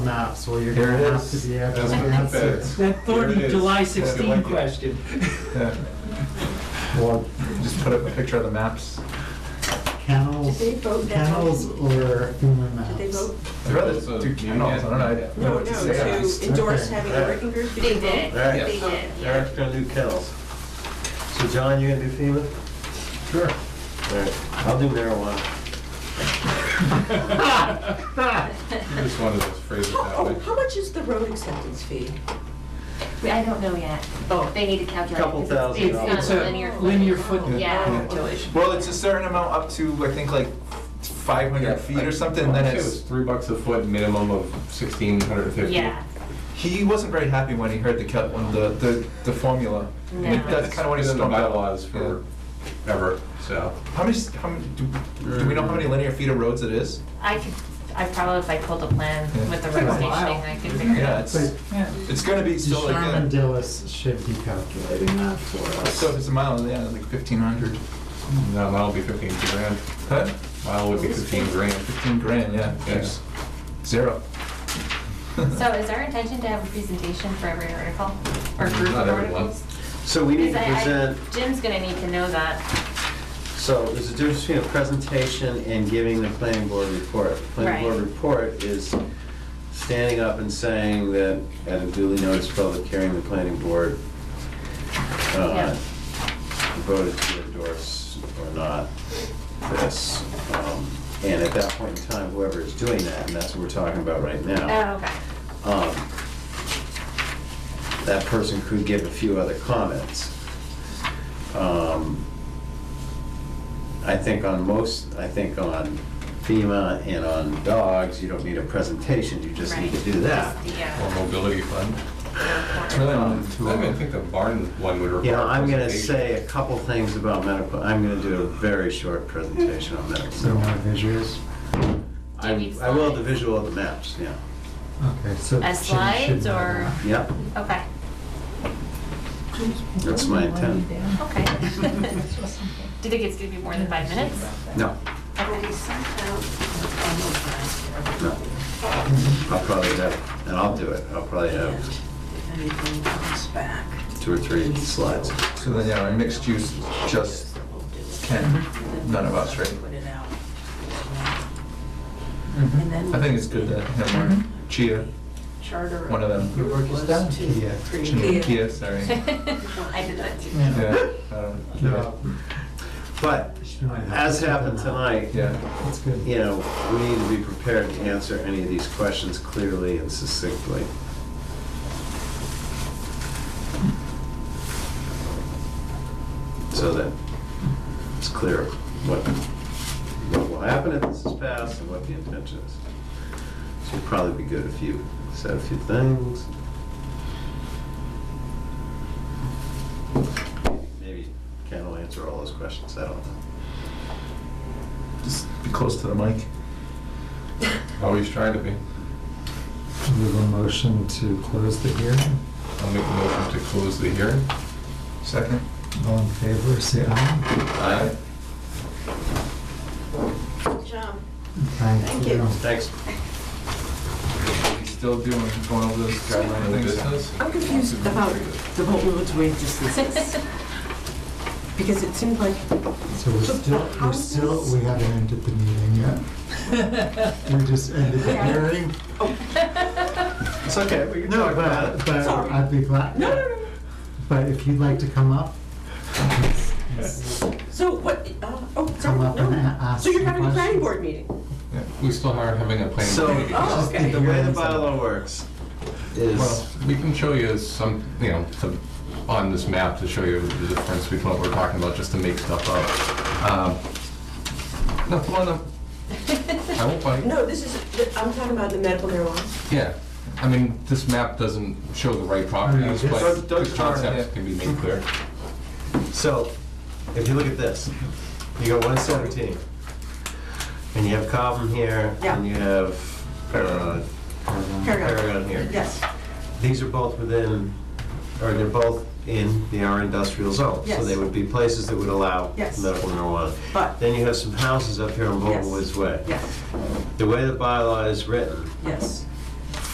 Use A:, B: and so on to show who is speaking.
A: not, so you're
B: Here
A: gonna
B: it
A: have to
B: is.
A: be after
B: That's
A: the
B: been
A: answer.
B: fixed.
C: That thorny
B: Here it is.
C: July
B: Yeah, I
C: 16
B: like it.
C: question.
B: Yeah.
A: Well,
B: Just put up a picture of the maps.
A: Kennels,
D: Did they vote down?
A: kennels or inland
D: Did they
A: maps?
D: vote?
B: I'd rather
E: So,
B: do kennels, I don't know, I don't know
D: No, no,
B: what to say. on this.
D: to endorse
A: Okay.
D: having a working group.
F: They did,
E: Right.
F: they
E: Yes.
F: did, yeah.
E: Eric's gonna do kennels. So John, you gonna do FEMA?
A: Sure.
E: All right, I'll do marijuana.
B: You just wanted to phrase it that
D: Oh,
B: way.
D: how much is the road acceptance fee?
F: I don't know yet.
D: Oh.
F: They need to calculate.
E: Couple
F: 'cause
E: thousand
F: it's-
E: dollars.
F: It's
C: It's
F: not
C: a
F: linear.
C: linear
F: footing.
C: foot-
F: Yeah.
D: Calculation.
B: Well, it's a certain amount up to, I think, like five
E: Yeah,
B: hundred feet
E: like-
B: or something, and
E: I
B: then
E: think it was
B: it's,
E: Three bucks a foot, minimum of sixteen hundred and fifty.
F: Yeah,
B: he wasn't very happy when he heard the cal, when the, the, the formula. I
F: No.
B: think That's kind of what he's
E: It's been in
B: talking
E: the
B: about.
E: bylaws for ever, so.
B: How many, s- how many, do, do we know how many linear feet of roads it is?
F: I could, I probably, if I pulled a plan
B: Yeah.
F: with the
C: Took a
F: road
C: while.
F: stationing, I could figure it
B: Yeah,
F: out.
B: it's,
A: But
B: it's gonna be still like,
A: Sherman
B: a-
A: Dillis should be calculating that for us.
B: so if it's a mile, yeah, like fifteen hundred.
E: No, that'll be fifteen grand.
B: Huh?
E: Mile would be fifteen grand.
B: Fifteen grand, yeah,
E: Yeah.
B: It's zero.
F: So is our intention to have a presentation for every article
G: Mm,
F: or group of
E: Not every one.
F: articles?
E: So we need to
F: 'Cause I- I-
E: present,
F: Jim's gonna need to know that,
E: so there's a difference between a presentation and giving the planning board report. Planning
F: Right.
E: board report is standing up and saying that at a duly noticed public hearing, the planning board
F: Yeah.
E: uh, voted to endorse or not this. Um, And at that point in time, whoever is doing that, and that's what we're talking about right now.
F: oh, okay,
E: um, that person could give a few other comments. Um, I think on most, I think on FEMA and on dogs, you don't need a presentation, you just need to
F: Right.
E: do that.
F: Just the, uh,
G: Or mobility fund.
B: It's really
E: Um,
B: only two
G: I
B: of
G: mean, I
B: them.
G: think the barn one would require.
E: You know, I'm gonna
G: presentation.
E: say a couple things about medical, I'm gonna do a very short presentation on medical
A: So my
E: marijuana.
A: visuals.
E: I
F: Do you need
E: I will
F: slides?
E: the visual of the maps, yeah,
A: Okay, so. Jim
F: As
A: should
F: slides
A: know
F: or,
A: that.
E: yeah,
F: okay,
E: that's my intent.
F: okay. Do you think it's gonna be more than five minutes?
E: No,
D: Will be sent out?
E: no. I'll probably have, and I'll do it, I'll probably have
D: If anything comes back.
E: two or three slides.
B: So then, yeah, our mixed use, just Ken, none of us, right?
D: Put it out.
B: Mhm.
D: And then-
B: I think it's good that him or Chia,
D: Charter.
B: one of them,
A: Your work is done, Kia.
B: Chia, Kia, sorry.
F: I did that too.
B: Yeah, um, I don't
A: Yeah.
B: know.
E: But
A: She might have
E: as
A: to
E: happened
A: sit down.
E: tonight,
B: Yeah,
A: That's good.
E: you know, we need to be prepared to answer any of these questions clearly and succinctly. So that it's clear what, what will happen if this is passed and what the intention is. So it'd probably be good if you said a few things. Maybe Ken will answer all those questions, I don't know.
B: just be close to the mic.
G: Always try to be.
A: Move a motion to close the hearing.
G: I'll make a motion to close the hearing.
B: Second?
A: All in favor, say aye.
E: Aye.
D: John,
A: Thank
D: you.
E: Thanks.
B: He's Still doing, going over those
G: No
B: guidelines.
G: business.
D: I'm confused about the whole roadway distances. Because it seemed like
A: So we're still, we're still, we haven't ended the meeting yet. We just ended the hearing.
D: Oh.
E: It's okay, we can
A: No,
E: talk about
A: but,
E: it.
A: but
D: Sorry.
A: I'd be glad.
D: No, no, no, no.
A: But if you'd like to come up,
D: So what, uh, oh, sorry,
A: Come up and a-
D: no.
A: ask
D: So you're
A: some
D: having a planning
A: questions.
D: board meeting?
G: We still aren't having a planning
E: So,
G: board meeting.
D: Oh, okay.
E: the way the bylaw works
G: Well,
E: is,
G: we can show you some, you know, to- on this map to show you the difference between what we're talking about, just to make stuff up. Um, No, come on up. I won't bite.
D: No, this is, I'm talking about the medical marijuana.
G: Yeah, I mean, this map doesn't show the right properties,
A: Yeah, just-
G: but
E: Doug-
G: the
E: Doug's drawing
G: concepts
E: it.
G: can be made clear.
E: so, if you look at this, you got one seventeen, and you have Cobham here,
D: Yeah.
E: and you have uh, Paragon here.
D: Yes,
E: These are both within, or they're both in the R industrial zone. So
D: Yes.
E: they would be places that would allow
D: Yes.
E: medical marijuana.
D: But-
E: Then you have some houses up here on
D: Yes.
E: Bowman Woods Way.
D: yes,
E: The way the bylaw is written,
D: yes.